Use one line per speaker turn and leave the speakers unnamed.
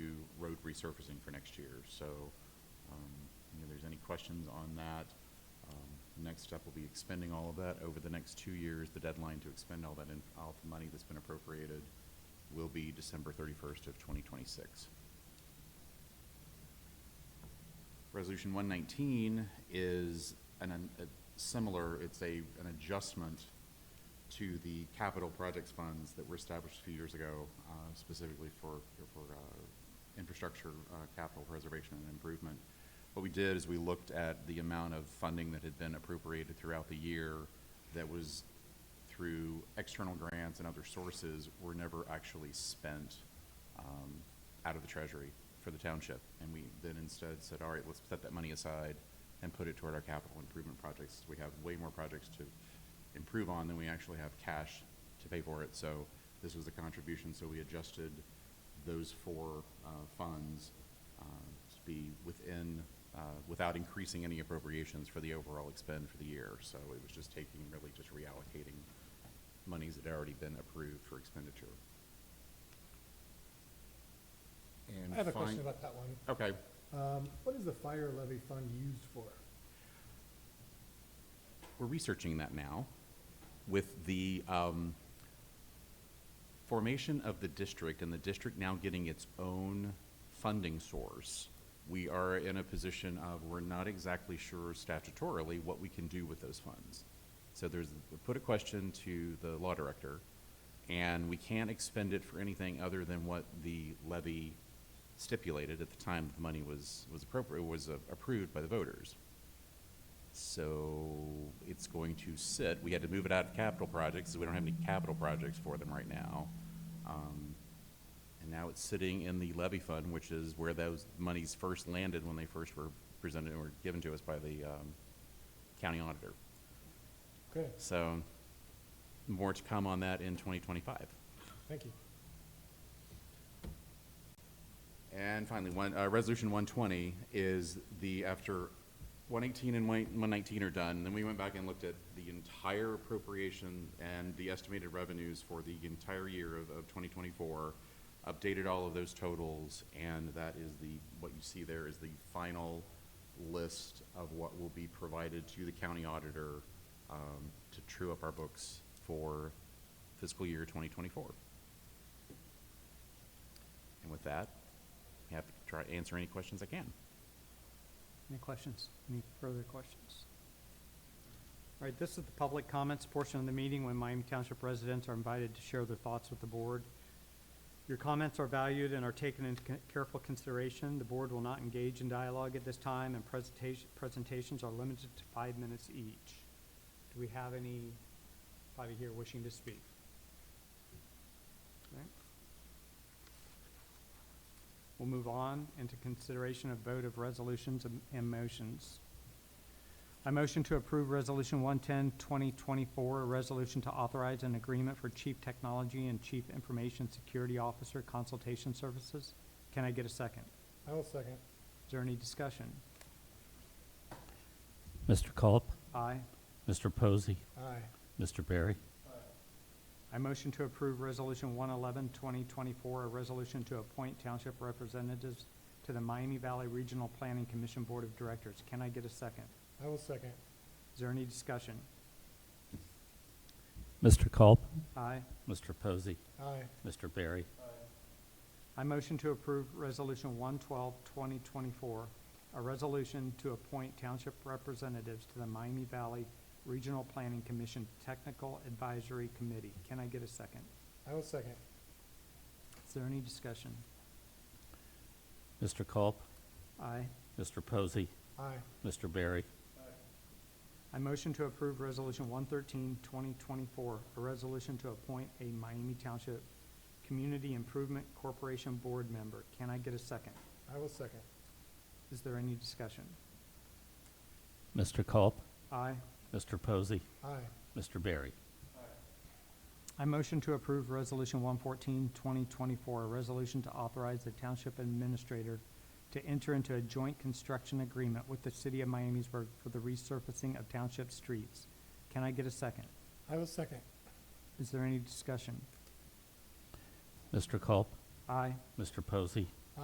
resurfacing for next year. So, um, you know, there's any questions on that, um, next step will be expending all of that over the next two years. The deadline to expend all that, in- all the money that's been appropriated will be December thirty-first of twenty twenty-six. Resolution one nineteen is an, a similar, it's a, an adjustment to the capital projects funds that were established a few years ago, uh, specifically for, for, uh, infrastructure, uh, capital preservation and improvement. What we did is we looked at the amount of funding that had been appropriated throughout the year that was through external grants and other sources were never actually spent um, out of the treasury for the township. And we then instead said, all right, let's set that money aside and put it toward our capital improvement projects. We have way more projects to improve on than we actually have cash to pay for it. So this was the contribution, so we adjusted those four uh, funds uh, to be within, uh, without increasing any appropriations for the overall expend for the year. So it was just taking, really just reallocating monies that had already been approved for expenditure. And
I have a
fin-
question about that one.
Okay,
Um, What is the fire levy fund used for?
we're researching that now with the um, formation of the district and the district now getting its own funding source. We are in a position of, we're not exactly sure statutorily what we can do with those funds. So there's, put a question to the law director, and we can't expend it for anything other than what the levy stipulated at the time the money was, was appropriate, was uh, approved by the voters. So it's going to sit, we had to move it out of capital projects, so we don't have any capital projects for them right now. Um, And now it's sitting in the levy fund, which is where those monies first landed when they first were presented, or given to us by the um, county auditor.
Okay,
So more to come on that in 2025.
thank you.
And finally, one, uh, resolution one twenty is the, after one eighteen and one nineteen are done, then we went back and looked at the entire appropriation and the estimated revenues for the entire year of, of twenty twenty-four, updated all of those totals, and that is the, what you see there is the final list of what will be provided to the county auditor, um, to true up our books for fiscal year twenty twenty-four. And with that, happy to try to answer any questions I can.
Any questions? Any further questions? All right, this is the public comments portion of the meeting when Miami Township residents are invited to share their thoughts with the board. Your comments are valued and are taken into con- careful consideration. The board will not engage in dialogue at this time, and presentation, presentations are limited to five minutes each. Do we have any, probably here wishing to speak? Okay. We'll move on into consideration of vote of resolutions and- and motions. I motion to approve Resolution 110, 2024, a resolution to authorize an agreement for Chief Technology and Chief Information Security Officer Consultation Services. Can I get a second?
I will second.
Is there any discussion?
Mr. Culp,
Aye.
Mr. Posey,
Aye.
Mr. Barry,
I motion to approve Resolution 111, 2024, a resolution to appoint township representatives to the Miami Valley Regional Planning Commission Board of Directors. Can I get a second?
I will second.
Is there any discussion?
Mr. Culp,
Aye.
Mr. Posey,
Aye.
Mr. Barry,
I motion to approve Resolution 112, 2024, a resolution to appoint township representatives to the Miami Valley Regional Planning Commission Technical Advisory Committee. Can I get a second?
I will second.
Is there any discussion?
Mr. Culp,
Aye.
Mr. Posey,
Aye.
Mr. Barry,
I motion to approve Resolution 113, 2024, a resolution to appoint a Miami Township Community Improvement Corporation Board member. Can I get a second?
I will second.
Is there any discussion?
Mr. Culp,
Aye.
Mr. Posey,
Aye.
Mr. Barry,
I motion to approve Resolution 114, 2024, a resolution to authorize the Township Administrator to enter into a joint construction agreement with the City of Miamisburg for the resurfacing of township streets. Can I get a second?
I will second.
Is there any discussion?
Mr. Culp,
Aye.
Mr. Posey,